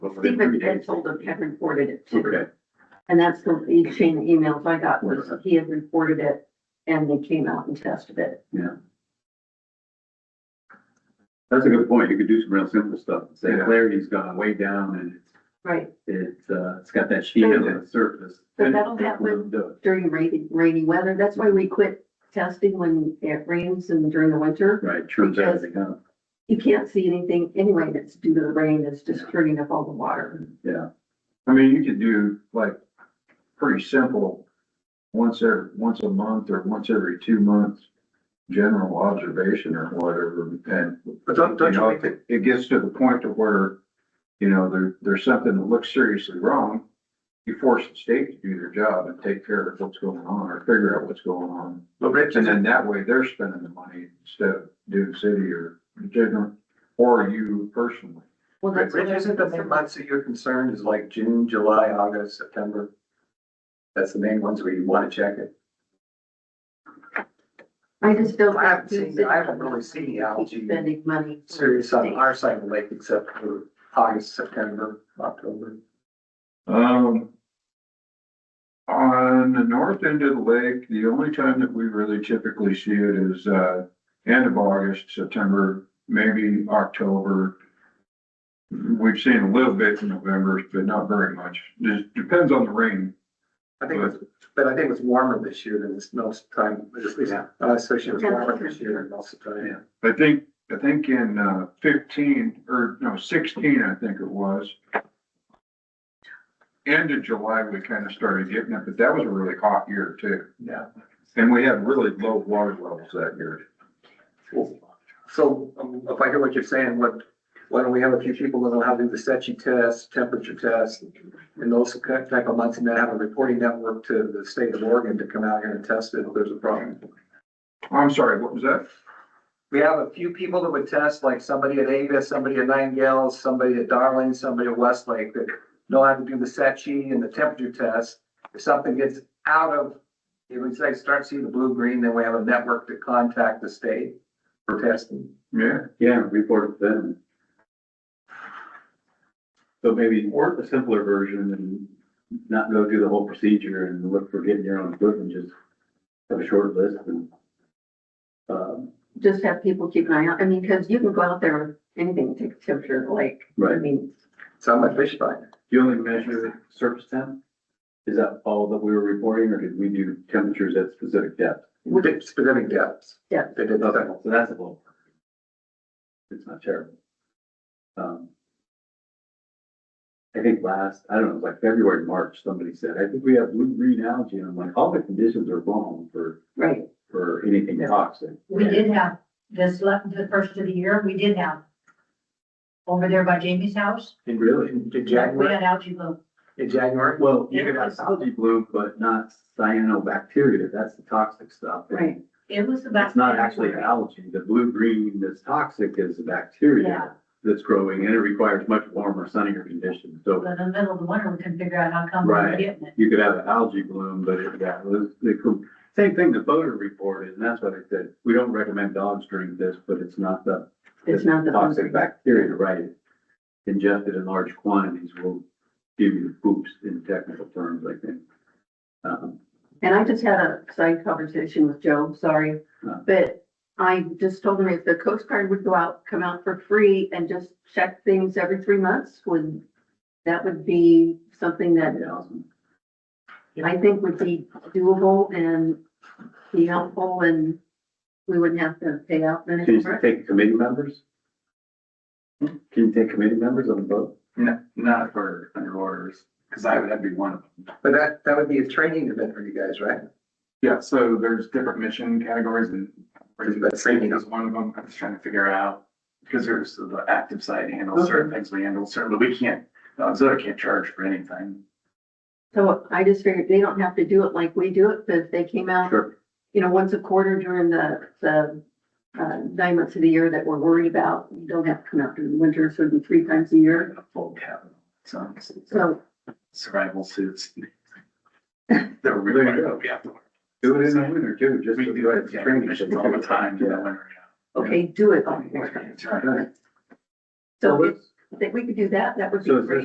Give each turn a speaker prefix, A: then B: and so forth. A: over
B: Steve
A: every
B: had
A: day.
B: been told him, had reported it to her.
A: Okay,
B: And that's the the chain of emails I got was he had reported it and they came out and tested it.
A: that's a good point. You could do some real simple stuff. Say
C: Yeah.
A: clarity's gone way down and
B: Right.
A: it's, uh, it's got that sheen on the surface.
B: But
A: And
B: that'll
A: it
B: happen.
A: will do it.
B: During rainy, rainy weather. That's why we quit testing when it rains and during the winter.
A: Right, trims
B: Because-
A: everything up.
B: You can't see anything anyway that's due to the rain that's just turning up all the water.
A: Yeah,
C: I mean, you could do like pretty simple, once every, once a month or once every two months, general observation or whatever, and.
D: But don't, don't
C: you
D: you
C: know,
D: think,
C: if It it gets to the point to where, you know, there, there's something that looks seriously wrong. You force the state to do their job and take care of what's going on or figure out what's going on.
D: but Rich,
C: And then
D: isn't
C: that way they're spending the money instead of Dune City or general, or you personally.
B: Well, that's. what
D: Rich, isn't the main months that you're concerned is like June, July, August, September? That's the main ones where you wanna check it.
B: I just don't.
D: I haven't
B: think
D: seen- I haven't really seen the algae.
B: Spending money.
A: Mm.
B: for
D: Serious on
B: things.
D: our side of the lake except for August, September, October.
C: Um, on the north end of the lake, the only time that we really typically see it is, uh, end of August, September, maybe October. We've seen a little bit in November, but not very much. Just depends on the rain.
D: I think
A: Mm.
D: it's, but I think it was warmer this year than this most time, at least,
A: Yeah.
D: I associate it was warmer this year than most of the
A: Yeah.
D: time.
C: I think, I think in, uh, fifteen, or no, sixteen, I think it was. End of July, we kind of started getting it, but that was a really hot year too.
D: Yeah.
C: And we had really low water levels that year.
D: So, um, if I hear what you're saying, what, why don't we have a few people that know how to do the Setchi test, temperature test, and those ki- type of months, and then have a reporting network to the state of Oregon to come out here and test it if there's a problem.
C: I'm sorry, what was that?
D: We have a few people that would test, like somebody at Avis, somebody at Nightingale, somebody at Darling, somebody at Westlake, that know how to do the Setchi and the temperature test. If something gets out of, if we say, start seeing the blue, green, then we have a network to contact the state for testing.
C: Yeah,
A: yeah, report it then. So maybe work a simpler version and not go through the whole procedure and look for getting your own equipment, just have a short list and. Um,
B: Just have people keep an eye out. I mean, because you can go out there, with anything, take a temperature of the lake. I
A: right,
B: mean,
D: So I'm a fish finder.
A: do you only measure surface temp? Is that all that we were reporting, or did we do temperatures at specific depth?
D: With it- specific depths.
B: Yeah.
D: They did that.
A: So that's a little. It's not terrible. Um. I think last, I don't know, it was like February, March, somebody said, I think we have blue green algae, and I'm like, all the conditions are wrong for,
B: right.
A: for anything toxic.
E: We did have, this, le- the first of the year, we did have. Over there by Jamie's house,
D: In
A: Really?
D: In in
E: we
D: January,
E: had algae bloom.
D: in January.
A: Well, you could have algae bloom, but not cyanobacteria, that's the toxic stuff. And
B: Right.
E: It was about.
A: It's not actually algae, the blue green that's toxic is the bacteria
E: Yeah.
A: that's growing, and it requires much warmer, sunnier conditions, so.
E: But in the middle of the winter, we couldn't figure out how come we
A: Right.
E: were getting it.
A: you could have an algae bloom, but it, yeah, it was, it could, same thing the voter reported, and that's what it said. We don't recommend dogs drink this, but it's not the.
B: It's not the.
A: Toxic bacteria, right? Ingested in large quantities will give you poops in technical terms, I think. Um,
B: And I just had a side conversation with Joe, sorry,
A: No.
B: but I just told him if the Coast Guard would go out, come out for free and just check things every three months, would, that would be something that
A: that'd be awesome.
B: I think would be doable and be helpful and we wouldn't have to pay out
A: Can
B: anything
A: you
B: for it.
A: take committee members? Can you take committee members on the boat?
F: No, not for under orders, because I would have to be one of them.
D: But that, that would be a training event for you guys, right?
F: Yeah, so there's different mission categories and training is one of them. I'm just trying to figure out. Because there's the active side handles certain things we handle, certain, but we can't, the auxiliary can't charge for anything.
B: So I just figured they don't have to do it like we do it, but if they came out,
A: Sure.
B: you know, once a quarter during the, the uh, nine months of the year that we're worried about, you don't have to come out during the winter, so it'd be three times a year.
F: A full cabin, so
B: So
F: survival suits. They're really,
A: There you go.
F: we have to. work.
A: Do it in the winter too, just.
F: We
A: so
F: do
A: we have
F: the training missions all the time, you know,
A: Yeah.
F: when
B: Okay, do it.
F: we're. out.
B: So if, if we could do that, that would be
A: So is
B: great.